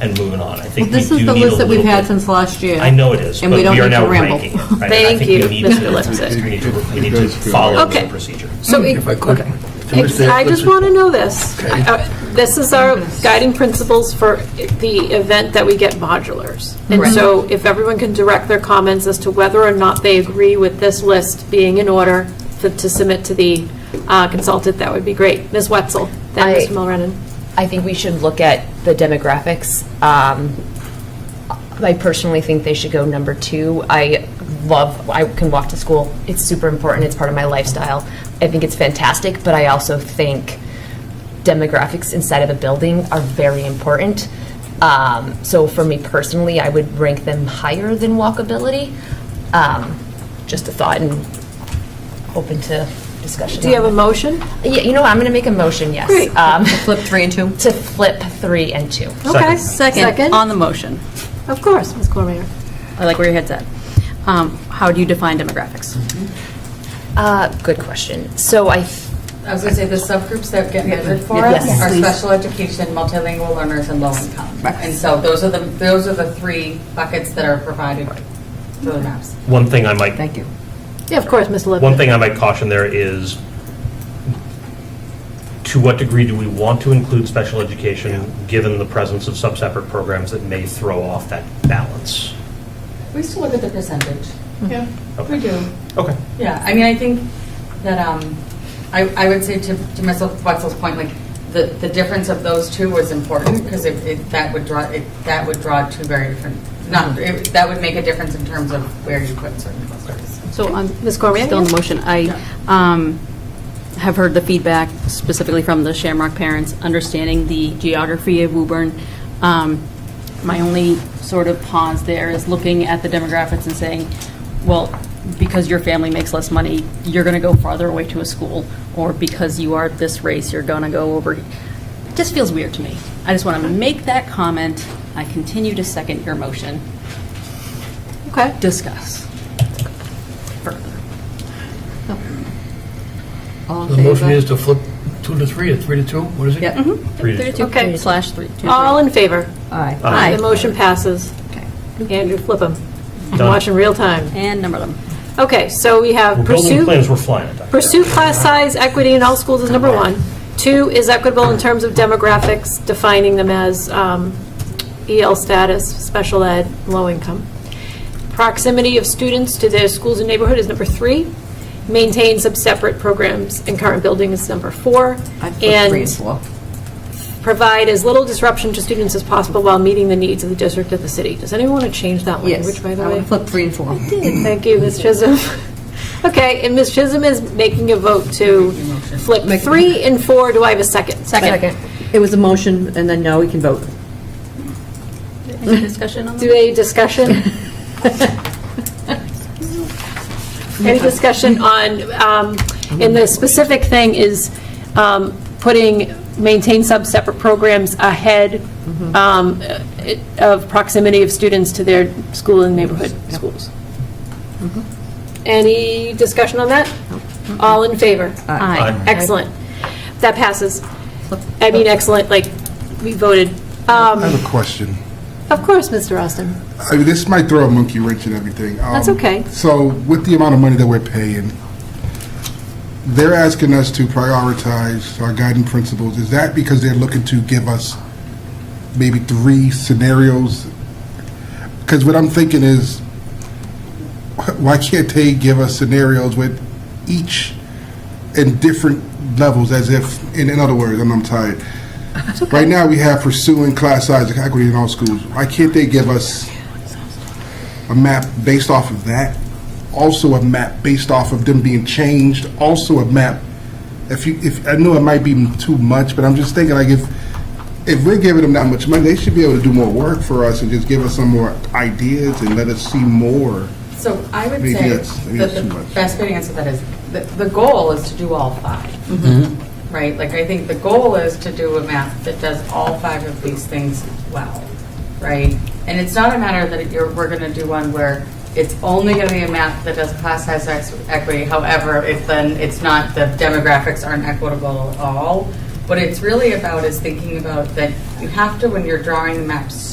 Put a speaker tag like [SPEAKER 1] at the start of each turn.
[SPEAKER 1] and moving on. I
[SPEAKER 2] Well,
[SPEAKER 1] think we
[SPEAKER 2] this
[SPEAKER 1] do
[SPEAKER 2] is
[SPEAKER 1] need a
[SPEAKER 2] the list that we've
[SPEAKER 1] little
[SPEAKER 2] had
[SPEAKER 1] bit-
[SPEAKER 2] since last year.
[SPEAKER 1] I know it is, but
[SPEAKER 2] and we
[SPEAKER 1] we
[SPEAKER 2] don't
[SPEAKER 1] are
[SPEAKER 2] need to
[SPEAKER 1] now
[SPEAKER 2] ramble.
[SPEAKER 1] ranking it. right? I
[SPEAKER 3] Thank
[SPEAKER 1] think we
[SPEAKER 3] you,
[SPEAKER 1] need
[SPEAKER 3] Mr.
[SPEAKER 1] to-
[SPEAKER 3] Lipsick.
[SPEAKER 1] We need to, we need to
[SPEAKER 4] Guys feel
[SPEAKER 1] follow
[SPEAKER 3] Okay.
[SPEAKER 1] the procedure.
[SPEAKER 3] So, it-
[SPEAKER 4] If I could.
[SPEAKER 3] okay.
[SPEAKER 4] Finish that,
[SPEAKER 3] I just
[SPEAKER 4] Richard.
[SPEAKER 3] want to know this.
[SPEAKER 4] Okay.
[SPEAKER 3] Uh, This is our guiding principles for the event that we get modulars. And
[SPEAKER 5] Correct.
[SPEAKER 3] so if everyone can direct their comments as to whether or not they agree with this list being in order to to submit to the uh, consultant, that would be great. Ms. Wetzel, then
[SPEAKER 5] I-
[SPEAKER 3] Mr. Mulrennan.
[SPEAKER 5] I think we should look at the demographics. Um, I personally think they should go number two. I love, I can walk to school. It's super important. It's part of my lifestyle. I think it's fantastic, but I also think demographics inside of a building are very important. Um, so for me personally, I would rank them higher than walkability. Um, just a thought and open to discussion.
[SPEAKER 3] Do you have a
[SPEAKER 5] on
[SPEAKER 3] motion?
[SPEAKER 5] that. Yeah, you know, what? I'm going to make a motion, yes.
[SPEAKER 3] Great.
[SPEAKER 5] Um,
[SPEAKER 2] Flip three and two.
[SPEAKER 5] to flip three and two.
[SPEAKER 3] Okay,
[SPEAKER 1] Second.
[SPEAKER 3] second.
[SPEAKER 2] On the motion.
[SPEAKER 3] Of course, Ms. Cormier.
[SPEAKER 2] I like where your head's at. Um, How do you define demographics?
[SPEAKER 5] Uh, good question. So I, th-
[SPEAKER 6] I was going to say, the subgroups that get measured for
[SPEAKER 5] Yes,
[SPEAKER 6] us are
[SPEAKER 5] please.
[SPEAKER 6] special education, multilingual learners, and low income. And so those are the, those are the three buckets that are provided for the maps.
[SPEAKER 1] One thing I might
[SPEAKER 5] thank you.
[SPEAKER 3] Yeah, of course, Ms. Lippitt.
[SPEAKER 1] One thing I might caution there is, to what degree do we want to include special education, given the presence of sub-separate programs that may throw off that balance?
[SPEAKER 6] We still look at the percentage. Yeah,
[SPEAKER 1] we
[SPEAKER 6] do.
[SPEAKER 1] Okay.
[SPEAKER 6] Yeah, I mean, I think that, um, I, I would say to, to Ms. Wetzel's point, like, the, the difference of those two was important, because it, it, that would draw, it, that would draw two very different, not, it- that would make a difference in terms of where you put certain clusters.
[SPEAKER 2] So on,
[SPEAKER 3] Ms. Cormier?
[SPEAKER 2] still on the motion, I um, have heard the feedback specifically from the Shamrock parents, understanding the geography of Woburn. Um, My only sort of pause there is looking at the demographics and saying, well, because your family makes less money, you're going to go farther away to a school, or because you are this race, you're going to go over. It just feels weird to me. I just want to make that comment. I continue to second your motion.
[SPEAKER 3] Okay.
[SPEAKER 2] Discuss further. Oh.
[SPEAKER 4] The motion is to flip two to three or three to two, what is it?
[SPEAKER 2] Mm-hmm.
[SPEAKER 5] Yep.
[SPEAKER 1] Three to two.
[SPEAKER 3] Okay.
[SPEAKER 2] Slash three. two,
[SPEAKER 3] All
[SPEAKER 2] three.
[SPEAKER 3] in favor?
[SPEAKER 5] Aye.
[SPEAKER 1] Aye.
[SPEAKER 3] The motion passes. Andrew, flip them.
[SPEAKER 1] Done.
[SPEAKER 3] Watch in real time.
[SPEAKER 2] And number them.
[SPEAKER 3] Okay, so we have
[SPEAKER 1] We're building
[SPEAKER 3] pursue,
[SPEAKER 1] plans, we're flying it. Dr.
[SPEAKER 3] pursue class size equity in all schools is number one. Two is equitable in terms of demographics, defining them as um, EL status, special ed, low income. Proximity of students to their schools and neighborhood is number three. Maintain sub-separate programs in current building is number four. And provide as little disruption to students as possible while meeting the needs of the district of the city. Does anyone want to change that language, by the way?
[SPEAKER 7] flip three and four.
[SPEAKER 3] Thank you, Ms. Chisholm. Okay, and Ms. Chisholm is making a vote to flip three and four. Do I have a second?
[SPEAKER 5] Second.
[SPEAKER 7] It was a motion, and then now we can vote.
[SPEAKER 2] Any discussion on
[SPEAKER 3] Do a discussion? Any discussion on, um, and the specific thing is um, putting, maintain sub-separate programs ahead um, it- of proximity of students to their school and neighborhood schools. Any discussion on that? All in favor?
[SPEAKER 2] Aye.
[SPEAKER 3] Excellent. That passes. I mean, excellent, like, we voted. Um,
[SPEAKER 8] I have a question.
[SPEAKER 3] Of course, Mr. Austin.
[SPEAKER 8] I mean, this might throw a monkey wrench in everything. Um,
[SPEAKER 3] That's okay.
[SPEAKER 8] So, with the amount of money that we're paying, they're asking us to prioritize our guiding principles. Is that because they're looking to give us maybe three scenarios? Because what I'm thinking is, why can't they give us scenarios with each in different levels, as if, in, in other words, and I'm tired. Right now, we have pursuing class size equity in all schools. Why can't they give us a map based off of that? Also, a map based off of them being changed. Also, a map. If you, if I know it might be too much, but I'm just thinking like if if we're giving them that much money, they should be able to do more work for us and just give us some more ideas and let us see more.
[SPEAKER 6] So I would
[SPEAKER 8] Maybe
[SPEAKER 6] say
[SPEAKER 8] that's- maybe
[SPEAKER 6] that
[SPEAKER 8] that's too
[SPEAKER 6] the
[SPEAKER 8] much.
[SPEAKER 6] best way to answer that is, the, the goal is to do all five. Right? Like, I think the goal is to do a map that does all five of these things well, right? And it's not a matter that you're, we're going to do one where it's only going to be a map that does class size ex- equity, however, if then it's not, the demographics aren't equitable at all. What it's really about is thinking about that you have to, when you're drawing the maps,